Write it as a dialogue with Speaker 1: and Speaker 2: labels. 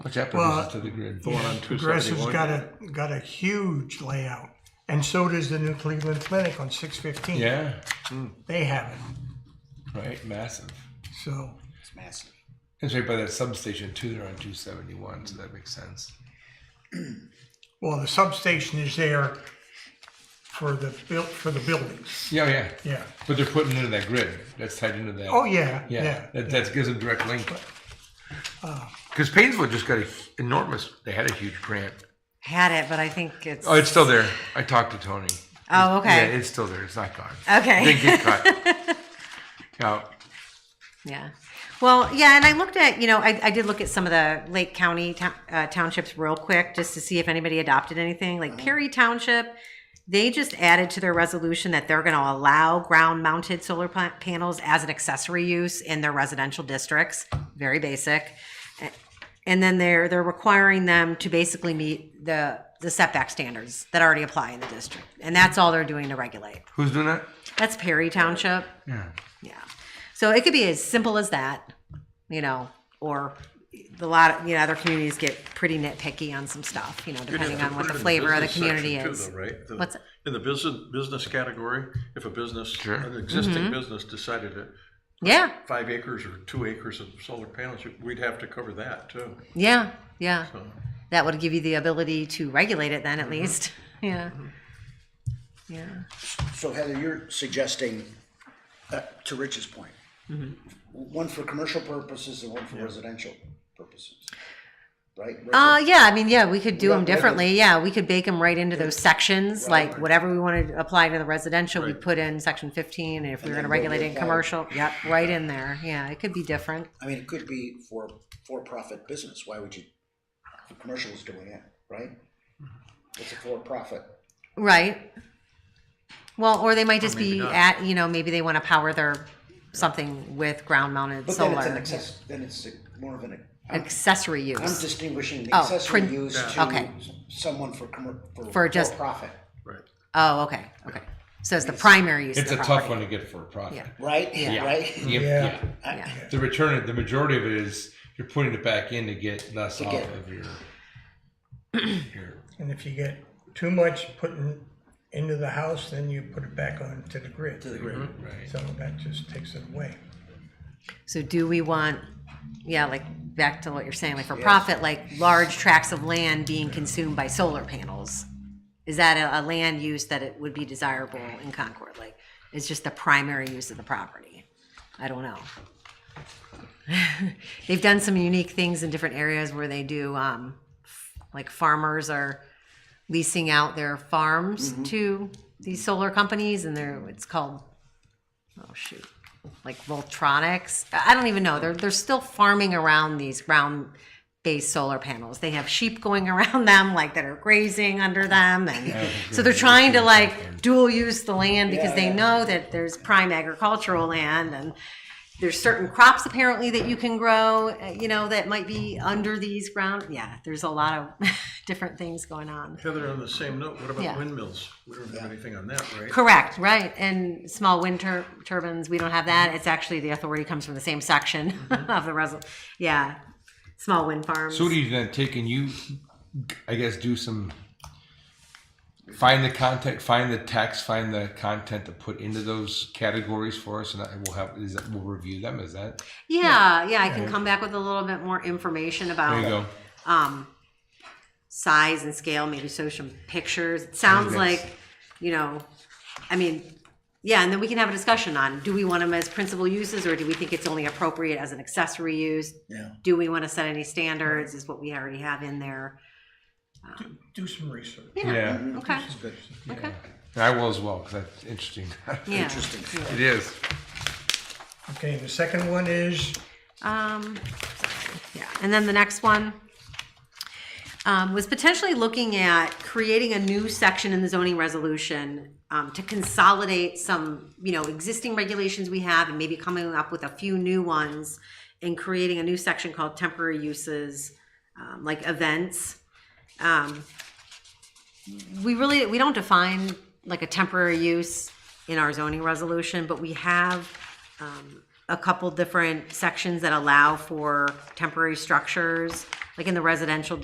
Speaker 1: What's that
Speaker 2: Well,
Speaker 1: to the grid?
Speaker 3: The one on two
Speaker 2: Progressive's
Speaker 3: seventy-one?
Speaker 2: got a, got a huge layout, and so does the New Cleveland Clinic on six fifteen.
Speaker 1: Yeah,
Speaker 2: They have it,
Speaker 1: right, massive.
Speaker 2: so,
Speaker 4: It's massive.
Speaker 1: It's right by that substation too, they're on two seventy-one, so that makes sense.
Speaker 2: well, the substation is there for the built, for the buildings,
Speaker 1: Yeah, oh, yeah,
Speaker 2: yeah.
Speaker 1: but they're putting into that grid, that's tied into that.
Speaker 2: Oh, yeah,
Speaker 1: Yeah,
Speaker 2: yeah.
Speaker 1: that, that gives them direct link.
Speaker 3: uh,
Speaker 1: Cause Painesville just got a enormous, they had a huge grant.
Speaker 5: Had it, but I think it's.
Speaker 1: Oh, it's still there. I talked to Tony.
Speaker 5: Oh,
Speaker 1: Yeah,
Speaker 5: okay.
Speaker 1: it's still there. It's not gone.
Speaker 5: Okay.
Speaker 1: Didn't get cut. Now,
Speaker 5: Yeah. Well, yeah, and I looked at, you know, I, I did look at some of the Lake County town- uh, townships real quick just to see if anybody adopted anything. Like Perry Township, they just added to their resolution that they're going to allow ground mounted solar pa- panels as an accessory use in their residential districts. Very basic. And then they're they're requiring them to basically meet the the setback standards that already apply in the district. And that's all they're doing to regulate.
Speaker 1: who's doing that?
Speaker 5: That's Perry Township.
Speaker 1: Yeah.
Speaker 5: Yeah. So it could be as simple as that, you know, or the lot, of, you know, other communities get pretty nitpicky on some stuff, you know, depending on what the flavor of the community is.
Speaker 3: Right? The-
Speaker 5: What's-
Speaker 3: In the business, business category, if a business,
Speaker 1: Sure.
Speaker 3: an
Speaker 5: Mm-hmm.
Speaker 3: existing business decided to
Speaker 5: Yeah,
Speaker 3: five acres or two acres of solar panels, we'd have to cover that too.
Speaker 5: yeah, yeah.
Speaker 3: So,
Speaker 5: That would give you the ability to regulate it then at least. Yeah. Yeah.
Speaker 4: So Heather, you're suggesting, uh, to Rich's point, one for commercial purposes and one for residential purposes, right?
Speaker 5: Uh, yeah, I mean, yeah, we could do
Speaker 4: Yeah,
Speaker 5: them
Speaker 4: yeah, but-
Speaker 5: differently. Yeah, we could bake them right into those sections, like whatever we want to apply to the residential, we
Speaker 3: Right.
Speaker 5: put in section fifteen, and if we're
Speaker 4: then
Speaker 5: gonna
Speaker 4: what we
Speaker 5: regulate it in
Speaker 4: apply.
Speaker 5: commercial, yep, right in there. Yeah, it could be different.
Speaker 4: I mean, it could be for for-profit business. Why would you? The commercial is doing it, right? It's a for-profit.
Speaker 5: Right. Well, or they might just
Speaker 3: maybe
Speaker 5: be
Speaker 3: not.
Speaker 5: at, you know, maybe they want to power their something with ground mounted
Speaker 4: But
Speaker 5: solar.
Speaker 4: then it's an access. Then it's a, more of an. I'm,
Speaker 5: Accessory
Speaker 4: I'm
Speaker 5: use.
Speaker 4: distinguishing the
Speaker 5: Oh,
Speaker 4: accessory
Speaker 5: print-
Speaker 4: use
Speaker 3: Yeah.
Speaker 4: to
Speaker 5: Okay.
Speaker 4: someone for commer- for
Speaker 5: For just-
Speaker 4: profit,
Speaker 3: Right.
Speaker 5: Oh, okay, okay. So it's the primary use of
Speaker 1: It's
Speaker 5: the
Speaker 1: a tough
Speaker 5: property.
Speaker 1: one to get for a profit.
Speaker 5: Yeah.
Speaker 4: right?
Speaker 5: Yeah.
Speaker 4: Right.
Speaker 1: Yeah.
Speaker 2: Yeah.
Speaker 1: yeah.
Speaker 5: Yeah.
Speaker 1: The return, the majority of it is you're putting it back in to get less off
Speaker 4: get-
Speaker 1: of your, your.
Speaker 2: And if you get too much putting into the house, then you put it back on to the grid. To the grid.
Speaker 1: Right.
Speaker 2: So that just takes it away.
Speaker 5: So do we want, yeah, like back to what you're saying, like for profit, like large tracts of land being consumed by solar panels? Is that a, a land use that it would be desirable in Concord? Like, it's just the primary use of the property? I don't know. They've done some unique things in different areas where they do, um, f- like farmers are leasing out their farms to these solar companies and they're, it's called, oh shoot like Voltronics. I I don't even know. They're they're still farming around these ground based solar panels. They have sheep going around them, like that are grazing under them, and so they're trying to like dual use the land because they know that there's prime agricultural land and. There's certain crops apparently that you can grow, uh, you know, that might be under these ground. Yeah, there's a lot of different things going on.
Speaker 3: Heather, on the same note, what
Speaker 5: Yeah.
Speaker 3: about windmills? We don't have anything on that, right?
Speaker 5: Correct, right. And small wind tur- turbines, we don't have that. It's actually, the authority comes from the same section of the resol, yeah. Small wind farms.
Speaker 1: Mm-hmm. So what do you then take and you, I guess, do some, find the content, find the text, find the content to put into those categories for us and I will have, is that, we'll review them, is that?
Speaker 5: Yeah, yeah, I can come back with a little bit more information about.
Speaker 1: There you go.
Speaker 5: um, size and scale, maybe show some pictures. It sounds
Speaker 1: Yes.
Speaker 5: like, you know, I mean, yeah, and then we can have a discussion on, do we want them as principal uses or do we think it's only appropriate as an accessory use?
Speaker 4: Yeah.
Speaker 5: Do we want to set any standards? Is what we already have in there?
Speaker 2: Do some research.
Speaker 1: Yeah.
Speaker 5: Okay,
Speaker 4: It's good.
Speaker 5: Mm-hmm. okay,
Speaker 1: And I will as well, because that's interesting.
Speaker 5: yeah.
Speaker 4: Interesting.
Speaker 1: It is.
Speaker 2: Okay, the second one is,
Speaker 5: Um, yeah, and then the next one um, was potentially looking at creating a new section in the zoning resolution um, to consolidate some, you know, existing regulations we have and maybe coming up with a few new ones and creating a new section called temporary uses, um, like events. Um, we really, we don't define like a temporary use in our zoning resolution, but we have um, a couple different sections that allow for temporary structures. Like like in the residential